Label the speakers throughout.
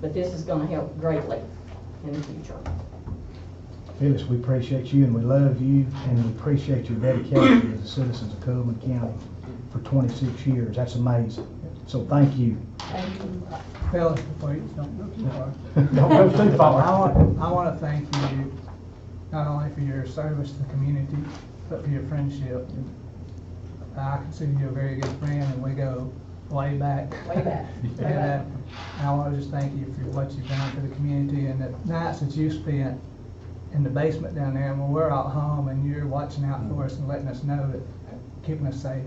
Speaker 1: But this is gonna help greatly in the future.
Speaker 2: Phyllis, we appreciate you and we love you and we appreciate your dedication as a citizen of Coleman County for 26 years. That's amazing. So thank you.
Speaker 1: Thank you.
Speaker 3: Fellas, before you, don't go too far.
Speaker 2: Don't go too
Speaker 3: I
Speaker 2: far.
Speaker 3: want, I want to thank you, not only for your service to the community, but for your friendship. I consider you a very good friend, and we go way back.
Speaker 1: Way back, way
Speaker 3: And, uh,
Speaker 1: back.
Speaker 3: I want to just thank you for what you've done for the community and the nights that you spent in the basement down there, and when we're out home and you're watching out for us and letting us know that, keeping us safe,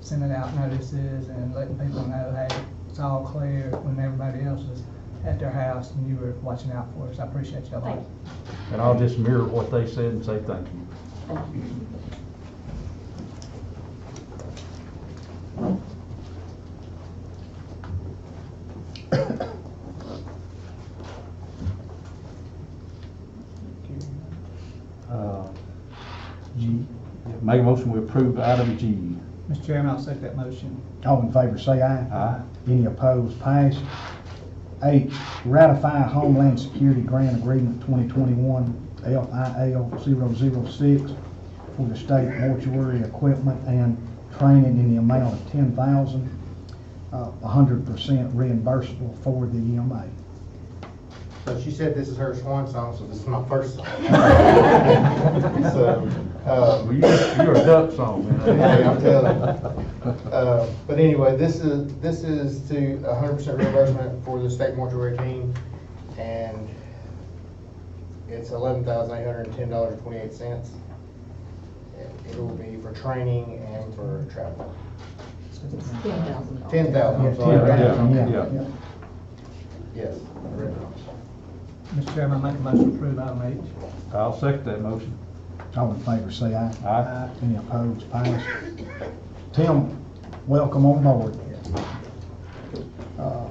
Speaker 3: sending out notices and letting people know, hey, it's all clear when everybody else was at their house and you were watching out for us. I appreciate you a lot.
Speaker 1: Thank
Speaker 4: And I'll just mirror what they said and say thank you.
Speaker 1: Thank you.
Speaker 4: Uh, G, make a motion, we approve item G.
Speaker 3: Mr. Chairman, I'll second that motion.
Speaker 2: All in favor, say aye.
Speaker 4: Aye.
Speaker 2: Any opposed, pass. H, ratify Homeland Security Grant Agreement 2021 LIL 006 for the state mortuary equipment and training in the amount of 10000 uh, 100% reimbursable for the E EMA.
Speaker 5: So she said this is her swan song, so this is my first song. So, uh,
Speaker 4: Well, you- You're a duck song, man.
Speaker 5: Hey, I'm telling uh, But anyway, this is, this is to hundred percent reimbursement for the state mortuary team, and it's eleven thousand eight hundred and ten dollars and twenty-eight cents. It will be for training and for travel.
Speaker 1: It's ten thousand dollars.
Speaker 5: Ten thousand, I'm sorry.
Speaker 4: Yeah, yeah, yeah.
Speaker 5: Yes. I read it.
Speaker 3: Mr. Chairman, I make a motion to approve item H.
Speaker 4: I'll second that motion.
Speaker 2: All in favor, say aye.
Speaker 4: Aye.
Speaker 2: Any opposed, pass. Tim, welcome on board. Uh,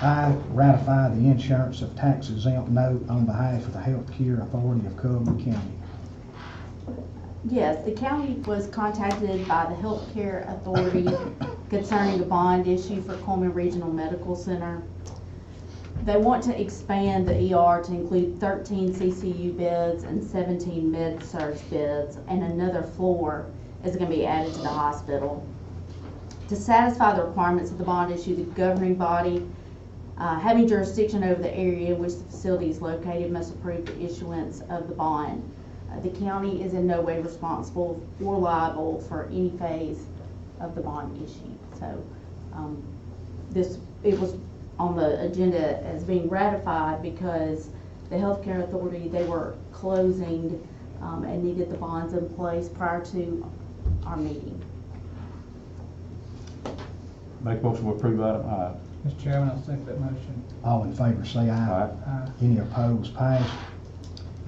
Speaker 2: I ratify the insurance of tax exempt note on behalf of the Health Care Authority of Coleman County.
Speaker 6: Yes, the county was contacted by the Health Care Authority concerning the bond issue for Coleman Regional Medical Center. They want to expand the ER to include thirteen CCU beds and seventeen med-surg beds, and another floor is gonna be added to the hospital. To satisfy the requirements of the bond issue, the governing body, uh, having jurisdiction over the area in which the facility is located, must approve the issuance of the bond. Uh, The county is in no way responsible or liable for any phase of the bond issue. So, um, this, it was on the agenda as being ratified because the healthcare authority, they were closing, um, and needed the bonds in place prior to our meeting.
Speaker 4: Make a motion, we approve item I.
Speaker 3: Mr. Chairman, I'll second that motion.
Speaker 2: All in favor, say aye.
Speaker 4: Aye.
Speaker 3: Aye.
Speaker 2: Any opposed, pass.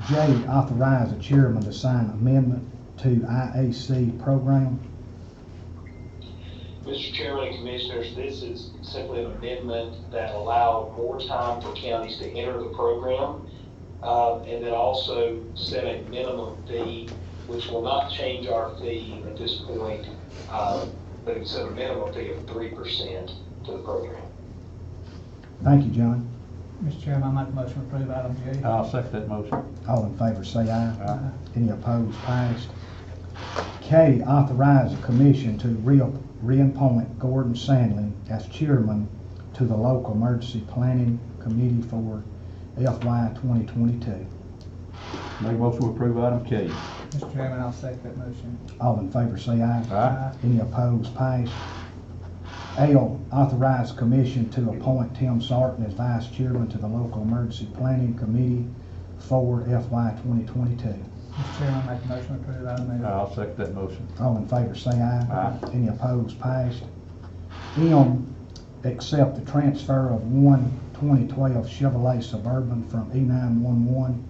Speaker 2: J, authorize the chairman to sign amendment to IAC program.
Speaker 7: Mr. Chairman and Commissioners, this is simply an amendment that allowed more time for counties to enter the program, uh, and then also set a minimum fee, which will not change our fee at this point, uh, but it's a minimum fee of three percent to the program.
Speaker 2: Thank you, John.
Speaker 3: Mr. Chairman, I make a motion to approve item J.
Speaker 4: I'll second that motion.
Speaker 2: All in favor, say aye.
Speaker 4: Aye.
Speaker 2: Any opposed, passed. K, authorize the commission to re- reappoint Gordon Sandlin as chairman to the local emergency planning committee for FY 2022.
Speaker 4: Make a motion, we approve item K.
Speaker 3: Mr. Chairman, I'll second that motion. Uh,
Speaker 2: All in favor, say aye.
Speaker 4: Aye.
Speaker 2: Any opposed, passed. L, authorize commission to appoint Tim Sarton as vice chairman to the local emergency planning committee for FY 2022.
Speaker 3: Mr. Chairman, I make a motion to approve item L.
Speaker 4: I'll second that motion.
Speaker 2: All in favor, say aye.
Speaker 4: Aye.
Speaker 2: Any opposed, passed. M, accept the transfer of one 2012 Chevrolet Suburban from E E911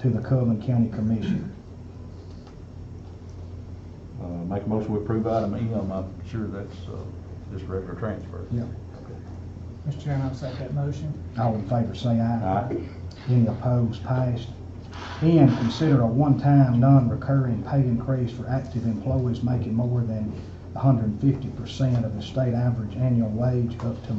Speaker 2: to the Coleman County Commission.
Speaker 4: Uh, make a motion, we approve item M. I'm sure that's, uh, just regular transfer.
Speaker 2: Yep.
Speaker 3: Mr. Chairman, I'll second that motion.
Speaker 2: All in favor, say aye.
Speaker 4: Aye.
Speaker 2: Any opposed, passed. N, consider a one-time, non-recurring pay increase for active employees making more than 150% of the state average annual wage up to